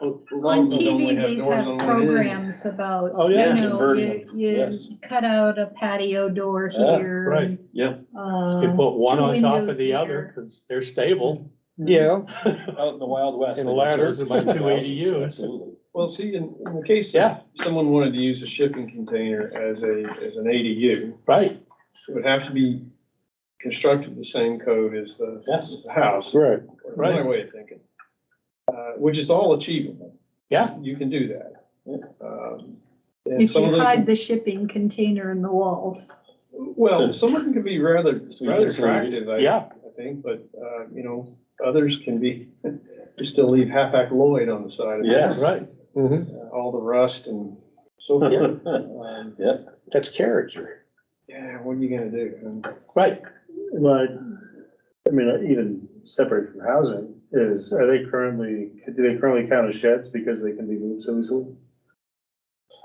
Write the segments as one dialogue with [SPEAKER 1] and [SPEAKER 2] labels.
[SPEAKER 1] On TV, they've had programs about,
[SPEAKER 2] Oh,
[SPEAKER 1] you
[SPEAKER 2] yeah.
[SPEAKER 1] know,
[SPEAKER 3] Converting,
[SPEAKER 1] you, you
[SPEAKER 3] yes.
[SPEAKER 1] cut out a patio door
[SPEAKER 3] Yeah,
[SPEAKER 1] here.
[SPEAKER 2] right.
[SPEAKER 1] and,
[SPEAKER 4] Yeah.
[SPEAKER 1] uh,
[SPEAKER 2] You put one
[SPEAKER 1] two
[SPEAKER 2] on top
[SPEAKER 1] windows
[SPEAKER 2] of the other,
[SPEAKER 1] there.
[SPEAKER 2] cause they're stable.
[SPEAKER 5] Yeah,
[SPEAKER 3] Out in the Wild West.
[SPEAKER 2] And
[SPEAKER 3] they
[SPEAKER 2] ladders
[SPEAKER 3] built
[SPEAKER 2] and my two
[SPEAKER 3] houses,
[SPEAKER 2] ADUs.
[SPEAKER 3] Absolutely.
[SPEAKER 4] Well, see, in, in the case,
[SPEAKER 2] Yeah.
[SPEAKER 4] that someone wanted to use a shipping container as a, as an ADU,
[SPEAKER 2] Right,
[SPEAKER 4] it would have to be constructed the same code as the,
[SPEAKER 2] Yes.
[SPEAKER 4] as the house.
[SPEAKER 5] right.
[SPEAKER 2] Right.
[SPEAKER 4] Another way of thinking, uh, which is all achievable.
[SPEAKER 2] Yeah.
[SPEAKER 4] You can do that.
[SPEAKER 3] Yeah.
[SPEAKER 4] Um, and
[SPEAKER 1] If
[SPEAKER 4] some of
[SPEAKER 1] you
[SPEAKER 4] them-
[SPEAKER 1] hide the shipping container in the walls.
[SPEAKER 2] Hmm.
[SPEAKER 4] Well, some of them can be rather,
[SPEAKER 3] So you
[SPEAKER 4] rather
[SPEAKER 3] can sell it.
[SPEAKER 4] attractive, I,
[SPEAKER 2] yeah,
[SPEAKER 4] I think, but, uh, you know, others can be, you still leave half-act Lloyd on the side of it.
[SPEAKER 3] Yes.
[SPEAKER 2] right.
[SPEAKER 5] Mhm.
[SPEAKER 4] Uh, All the rust and so forth.
[SPEAKER 3] Yeah.
[SPEAKER 4] Um,
[SPEAKER 5] That's character.
[SPEAKER 4] Yeah, what are you gonna do? Um,
[SPEAKER 2] Right,
[SPEAKER 6] But, I mean, even separate from housing, is, are they currently, do they currently count as sheds because they can be moved so easily?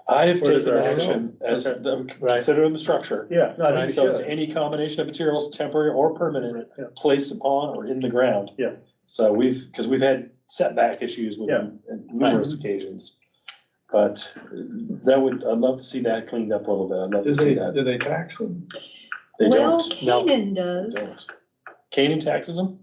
[SPEAKER 3] I have
[SPEAKER 6] Or does
[SPEAKER 3] taken
[SPEAKER 6] that-
[SPEAKER 3] action as, the-
[SPEAKER 2] Right.
[SPEAKER 3] consider them structure.
[SPEAKER 6] Yeah, no, I think
[SPEAKER 3] Right,
[SPEAKER 6] we
[SPEAKER 3] so it's
[SPEAKER 6] should.
[SPEAKER 3] any combination of materials, temporary or permanent,
[SPEAKER 6] Yeah.
[SPEAKER 3] placed upon or in the ground.
[SPEAKER 6] Yeah.
[SPEAKER 3] So we've, because we've had setback issues with them on numerous occasions. But that would, I'd love to see that cleaned up a little bit. I'd love
[SPEAKER 4] Do
[SPEAKER 3] to see
[SPEAKER 4] they,
[SPEAKER 3] that.
[SPEAKER 4] do they tax them?
[SPEAKER 3] They
[SPEAKER 1] Well,
[SPEAKER 3] don't.
[SPEAKER 2] No.
[SPEAKER 1] Canaan
[SPEAKER 3] They
[SPEAKER 1] does.
[SPEAKER 3] don't. Canaan taxes them?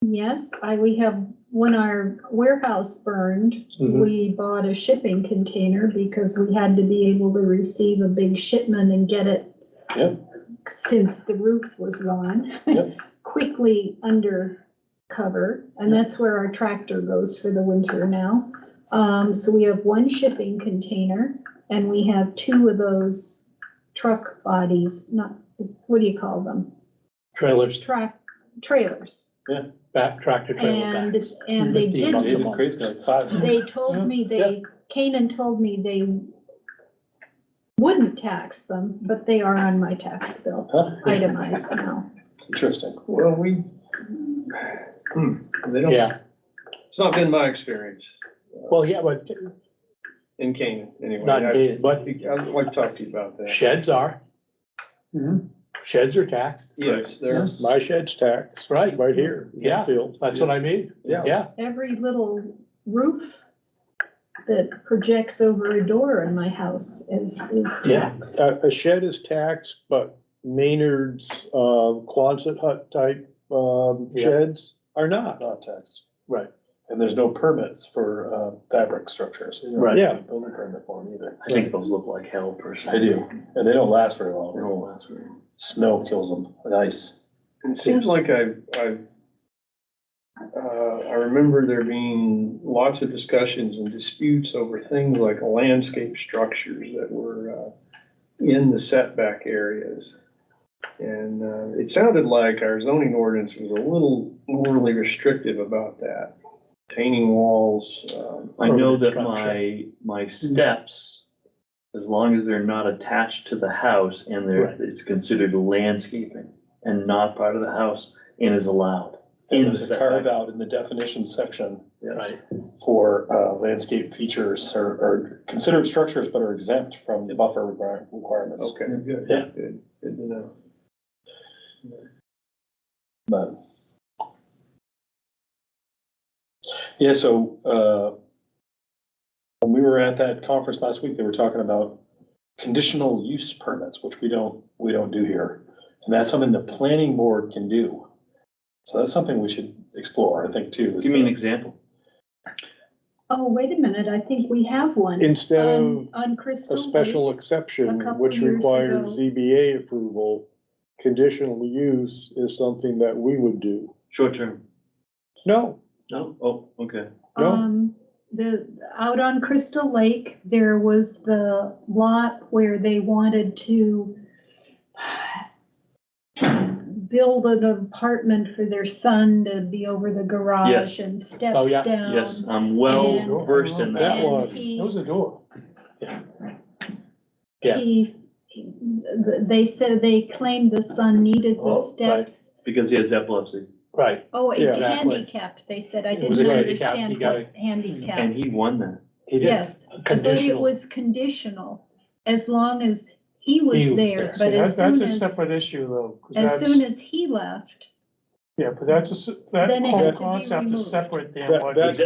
[SPEAKER 1] Yes, I, we have, when our warehouse burned,
[SPEAKER 3] Mm-hmm.
[SPEAKER 2] Mhm.
[SPEAKER 1] we bought a shipping container because we had to be able to receive a big shipment and get it.
[SPEAKER 3] Yep.
[SPEAKER 1] Since the roof was gone.
[SPEAKER 3] Yep.
[SPEAKER 1] Quickly under cover, and that's where our tractor goes for the winter now. Um, so we have one shipping container and we have two of those truck bodies, not, what do you call them?
[SPEAKER 2] trailers,
[SPEAKER 1] Track, trailers.
[SPEAKER 2] back, tractor trailer
[SPEAKER 1] And,
[SPEAKER 2] backs.
[SPEAKER 1] and they
[SPEAKER 2] Fifteen
[SPEAKER 1] did,
[SPEAKER 2] bucks.
[SPEAKER 3] David Crate's got five.
[SPEAKER 1] they told me, they, Canaan told me they wouldn't tax them, but they are on my tax bill,
[SPEAKER 3] Huh?
[SPEAKER 1] itemized now.
[SPEAKER 3] Interesting.
[SPEAKER 4] Well, we, hmm, they don't,
[SPEAKER 2] Yeah,
[SPEAKER 4] it's not been my experience
[SPEAKER 2] well, yeah, but
[SPEAKER 4] in Canaan, anyway.
[SPEAKER 2] not,
[SPEAKER 4] I-
[SPEAKER 2] dated, but
[SPEAKER 4] I'd like to talk to you about that.
[SPEAKER 2] sheds are. Sheds are taxed,
[SPEAKER 4] Yes, there,
[SPEAKER 3] Yes.
[SPEAKER 5] Mm-hmm. My shed's taxed,
[SPEAKER 2] right,
[SPEAKER 5] right here. in
[SPEAKER 2] Yeah.
[SPEAKER 5] Brookfield.
[SPEAKER 2] that's what I mean,
[SPEAKER 5] Yeah.
[SPEAKER 2] yeah,
[SPEAKER 1] Every little roof that projects over a door in my house is, is
[SPEAKER 2] Yeah.
[SPEAKER 1] taxed.
[SPEAKER 5] A, a shed is taxed, but Maynard's, uh, Quonset hut type, um,
[SPEAKER 2] Yeah.
[SPEAKER 5] sheds are not.
[SPEAKER 3] Not taxed.
[SPEAKER 5] Right.
[SPEAKER 3] And there's no permits for uh, fabric structures.
[SPEAKER 6] Right.
[SPEAKER 5] Yeah.
[SPEAKER 3] Building permit for them either.
[SPEAKER 6] I think those look like hell personally.
[SPEAKER 3] I do, and they don't last very
[SPEAKER 6] They
[SPEAKER 3] long.
[SPEAKER 6] don't last very long.
[SPEAKER 3] Snow kills them, and ice.
[SPEAKER 4] it seems like I've, I've, uh, I remember there being lots of discussions and disputes over things like landscape structures that were, uh, in the setback areas. And, uh, it sounded like our zoning ordinance was a little morally restrictive about that. Painting walls, um,
[SPEAKER 6] I know that
[SPEAKER 2] Permanent
[SPEAKER 6] my, my steps, as long as they're not attached to the house and
[SPEAKER 2] Right.
[SPEAKER 6] they're, it's considered landscaping and not part of the house and is allowed.
[SPEAKER 3] And
[SPEAKER 6] in
[SPEAKER 3] there's
[SPEAKER 6] the
[SPEAKER 3] a carve
[SPEAKER 6] setback.
[SPEAKER 3] out in the definition section
[SPEAKER 2] right,
[SPEAKER 3] for uh, landscape features or, or considered structures but are exempt from the buffer require- requirements.
[SPEAKER 4] okay, good,
[SPEAKER 3] Yeah.
[SPEAKER 4] good, good to know.
[SPEAKER 3] But. Yeah, so, uh, when we were at that conference last week, they were talking about conditional use permits, which we don't, we don't do here. And that's something the planning board can do. So that's something we should explore, I think, too. is
[SPEAKER 6] Give me an
[SPEAKER 3] the-
[SPEAKER 6] example.
[SPEAKER 1] Oh, wait a minute, I think we have one
[SPEAKER 5] Instead
[SPEAKER 1] on,
[SPEAKER 5] of
[SPEAKER 1] on
[SPEAKER 5] um, a
[SPEAKER 1] Crystal Lake.
[SPEAKER 5] special exception,
[SPEAKER 1] couple
[SPEAKER 5] which
[SPEAKER 1] years
[SPEAKER 5] requires
[SPEAKER 1] ago.
[SPEAKER 5] ZBA approval, conditional use is something that we would do.
[SPEAKER 6] Short term.
[SPEAKER 5] No,
[SPEAKER 6] No? Oh, okay.
[SPEAKER 5] No.
[SPEAKER 1] Um, the, out on Crystal Lake, there was the lot where they wanted to build an apartment for their son to be over the garage
[SPEAKER 6] Yes.
[SPEAKER 1] and
[SPEAKER 2] Oh,
[SPEAKER 1] steps
[SPEAKER 2] yeah.
[SPEAKER 1] down.
[SPEAKER 6] Yes, I'm well
[SPEAKER 1] And-
[SPEAKER 6] versed in that.
[SPEAKER 5] That one.
[SPEAKER 1] And he-
[SPEAKER 2] it was a door. Yeah.
[SPEAKER 1] he, they said they claimed the son needed
[SPEAKER 6] Oh,
[SPEAKER 1] the
[SPEAKER 6] right.
[SPEAKER 1] steps.
[SPEAKER 6] Because he has epilepsy
[SPEAKER 2] Right,
[SPEAKER 1] Oh, and
[SPEAKER 5] Yeah.
[SPEAKER 2] Exactly.
[SPEAKER 1] handicapped, they said, I
[SPEAKER 2] It was
[SPEAKER 1] didn't
[SPEAKER 2] a handicap, he
[SPEAKER 1] understand
[SPEAKER 2] got
[SPEAKER 1] what handicap.
[SPEAKER 6] and he won that.
[SPEAKER 2] he did,
[SPEAKER 1] Yes, but it
[SPEAKER 2] conditional,
[SPEAKER 1] was conditional, as long as he was
[SPEAKER 2] He was
[SPEAKER 1] there,
[SPEAKER 2] there.
[SPEAKER 1] but
[SPEAKER 7] That's,
[SPEAKER 1] as
[SPEAKER 7] that's
[SPEAKER 1] soon
[SPEAKER 7] a
[SPEAKER 1] as,
[SPEAKER 7] separate issue though. 'cause
[SPEAKER 1] as
[SPEAKER 7] that's-
[SPEAKER 1] soon as he left,
[SPEAKER 7] Yeah, but that's a, s- that
[SPEAKER 1] Then it
[SPEAKER 7] whole
[SPEAKER 1] had to be
[SPEAKER 7] concept
[SPEAKER 1] removed.
[SPEAKER 7] is separate than
[SPEAKER 5] That-
[SPEAKER 7] what.
[SPEAKER 5] that's-